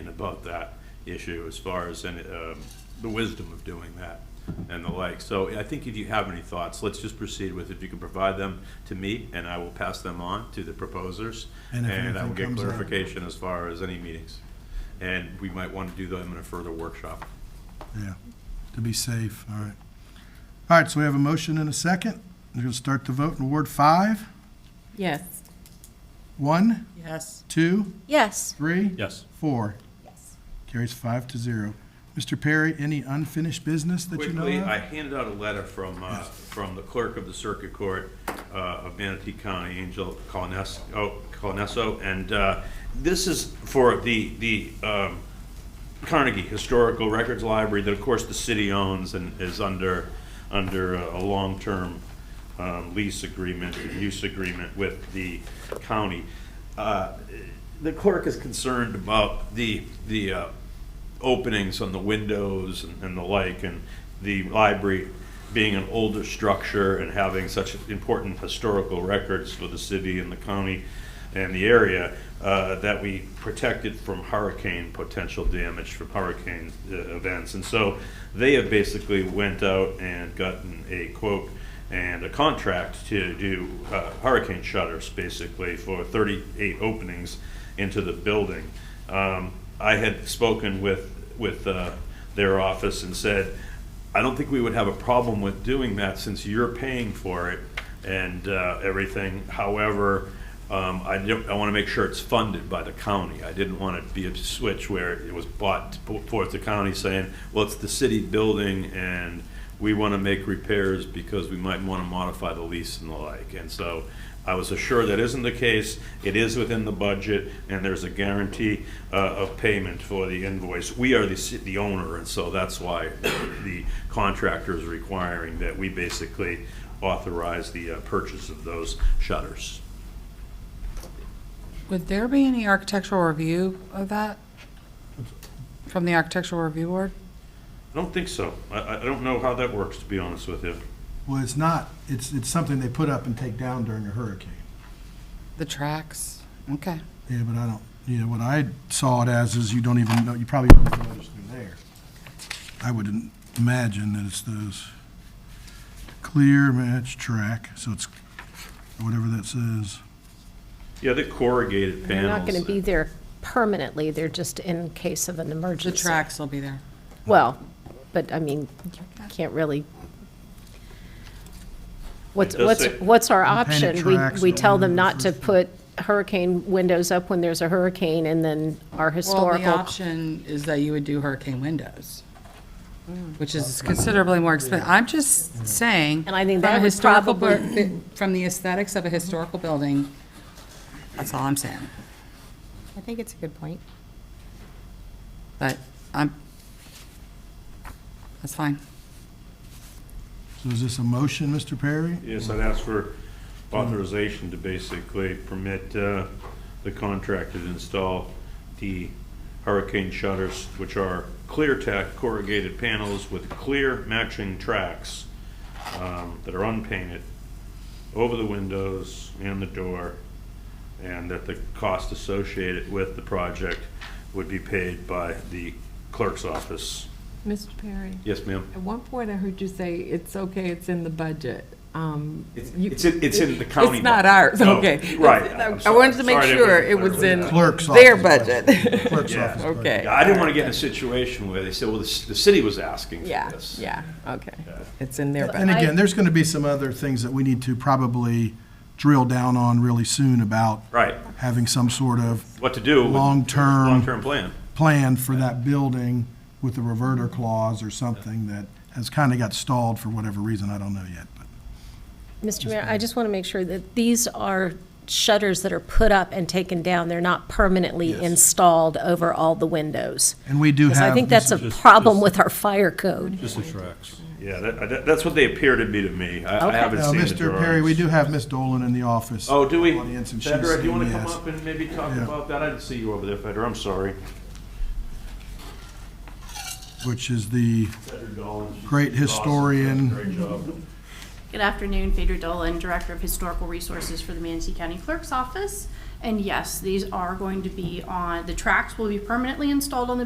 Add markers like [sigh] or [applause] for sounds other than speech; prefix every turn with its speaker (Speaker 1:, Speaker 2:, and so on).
Speaker 1: about that issue as far as any, um, the wisdom of doing that and the like. So I think if you have any thoughts, let's just proceed with, if you can provide them to me, and I will pass them on to the proposers.
Speaker 2: And if
Speaker 1: And I will
Speaker 2: anything
Speaker 1: get
Speaker 2: comes up.
Speaker 1: clarification as far as any meetings. And we might want to do them in a further workshop.
Speaker 2: Yeah, to be safe, all right. All right, so we have a motion and a second. We're going to start the vote in Ward 5.
Speaker 3: Yes.
Speaker 2: One,
Speaker 3: Yes.
Speaker 2: two,
Speaker 4: Yes.
Speaker 2: three,
Speaker 1: Yes.
Speaker 2: four. Carries five to zero. Mr. Perry, any unfinished business that you know
Speaker 1: Quickly, I
Speaker 2: of?
Speaker 1: handed out a letter from, uh, from the clerk of the circuit court uh, of Manatee County, Angel Colnes- oh, Colnesso, and uh, this is for the, the um, Carnegie Historical Records Library that, of course, the city owns and is under, under a a long-term um, lease agreement, use agreement with the county. Uh, The clerk is concerned about the, the uh, openings on the windows and and the like, and the library being an older structure and having such important historical records for the city and the county and the area, uh, that we protect it from hurricane potential damage from hurricane uh, events. And so they have basically went out and gotten a quote and a contract to do uh, hurricane shutters, basically, for 38 openings into the building. Um, I had spoken with, with uh, their office and said, I don't think we would have a problem with doing that since you're paying for it and uh, everything. However, um, I don't, I want to make sure it's funded by the county. I didn't want it to be a switch where it was bought towards the county saying, well, it's the city building and we want to make repairs because we might want to modify the lease and the like. And so I was assured that isn't the case. It is within the budget, and there's a guarantee uh, of payment for the invoice. We are the ci- the owner, and so that's why the contractor is requiring that we basically authorize the uh, purchase of those shutters.
Speaker 3: Would there be any architectural review of that? From the architectural review board?
Speaker 1: I don't think so. I- I I don't know how that works, to be honest with you.
Speaker 2: Well, it's not, it's, it's something they put up and take down during a hurricane.
Speaker 3: The tracks? Okay.
Speaker 2: Yeah, but I don't, yeah, what I saw it as is you don't even know, you probably don't know it's through there. I wouldn't imagine that it's those clear match track, so it's whatever that says.
Speaker 1: Yeah, the corrugated
Speaker 4: They're
Speaker 1: panels.
Speaker 4: not going to be there permanently, they're just in case of an
Speaker 3: The
Speaker 4: emergency.
Speaker 3: tracks will be there.
Speaker 4: Well, but I mean, you can't really, what's,
Speaker 1: It does
Speaker 4: what's,
Speaker 1: say-
Speaker 4: what's our
Speaker 2: Painted
Speaker 4: option? We,
Speaker 2: tracks
Speaker 4: we
Speaker 2: that
Speaker 4: tell
Speaker 2: went
Speaker 4: them
Speaker 2: in
Speaker 4: not
Speaker 2: the
Speaker 4: to
Speaker 2: first-
Speaker 4: put hurricane windows up when there's a hurricane and then our
Speaker 3: Well, the
Speaker 4: historical.
Speaker 3: option is that you would do hurricane windows, which is considerably more expensive. I'm just saying.
Speaker 4: And I think
Speaker 3: from a
Speaker 4: that would
Speaker 3: historical bu-
Speaker 4: probably-
Speaker 3: From the aesthetics of a historical building, that's all I'm saying.
Speaker 4: I think it's a good point.
Speaker 3: But I'm, that's fine.
Speaker 2: So is this a motion, Mr. Perry?
Speaker 1: Yes, I'd ask for authorization to basically permit uh, the contractor to install the hurricane shutters, which are clear tack corrugated panels with clear matching tracks um, that are unpainted over the windows and the door, and that the cost associated with the project would be paid by the clerk's office.
Speaker 5: Mr. Perry,
Speaker 1: Yes, ma'am?
Speaker 5: at one point I heard you say, it's okay, it's in the budget. Um,
Speaker 1: It's,
Speaker 5: you-
Speaker 1: it's in- it's in the county.
Speaker 5: It's not
Speaker 1: budget.
Speaker 5: ours,
Speaker 1: No,
Speaker 5: okay.
Speaker 1: Right.
Speaker 5: It's-
Speaker 1: I'm
Speaker 5: I wanted to
Speaker 1: sorry.
Speaker 5: make
Speaker 1: Sorry
Speaker 5: sure
Speaker 1: didn't
Speaker 5: it was
Speaker 1: clarify
Speaker 5: in
Speaker 1: that.
Speaker 2: Clerk's
Speaker 5: their
Speaker 2: office
Speaker 5: budget.
Speaker 2: Clerk's
Speaker 1: Yeah.
Speaker 2: office. budget.
Speaker 5: [laughs] Okay.
Speaker 1: Yeah, I didn't want to get in a situation where they said, well, the, c- the city was asking for
Speaker 5: Yeah,
Speaker 1: this.
Speaker 5: yeah, okay.
Speaker 1: Yeah.
Speaker 5: It's in their budget.
Speaker 2: And again, there's going to be some other things that we need to probably drill down on really soon about
Speaker 1: Right,
Speaker 2: having some sort of
Speaker 1: what to do. with-
Speaker 2: Long-term.
Speaker 1: Long-term plan.
Speaker 2: plan for that building with a reverter clause or something that has kind of got stalled for whatever reason, I don't know yet. but-
Speaker 4: Mr. Mayor, I just want to make sure that these are shutters that are put up and taken down, they're not permanently
Speaker 2: Yes.
Speaker 4: installed over all the windows.
Speaker 2: And we do have.
Speaker 4: Because I think that's a
Speaker 1: just-
Speaker 4: problem
Speaker 1: just-
Speaker 4: with our fire code.
Speaker 1: Just the tracks. Yeah, that, that, that's what they appear to be to me. I, I
Speaker 4: Okay.
Speaker 1: haven't
Speaker 2: Now,
Speaker 1: seen the
Speaker 2: Mr. Perry, we
Speaker 1: drawings.
Speaker 2: do have Ms. Dolan in the office.
Speaker 1: Oh, do we?
Speaker 2: Audience, and she's
Speaker 1: Federer, do you want to
Speaker 2: saying
Speaker 1: come
Speaker 2: yes.
Speaker 1: up and maybe talk
Speaker 2: Yeah.
Speaker 1: about that? I didn't see you over there, Federer, I'm sorry.
Speaker 2: Which is the,
Speaker 1: Federer Dolan, she's
Speaker 2: Great
Speaker 1: awesome.
Speaker 2: historian.
Speaker 1: Great job.
Speaker 6: Good afternoon, Phaedra Dolan, Director of Historical Resources for the Manatee County Clerk's Office. And yes, these are going to be on, the tracks will be permanently installed on the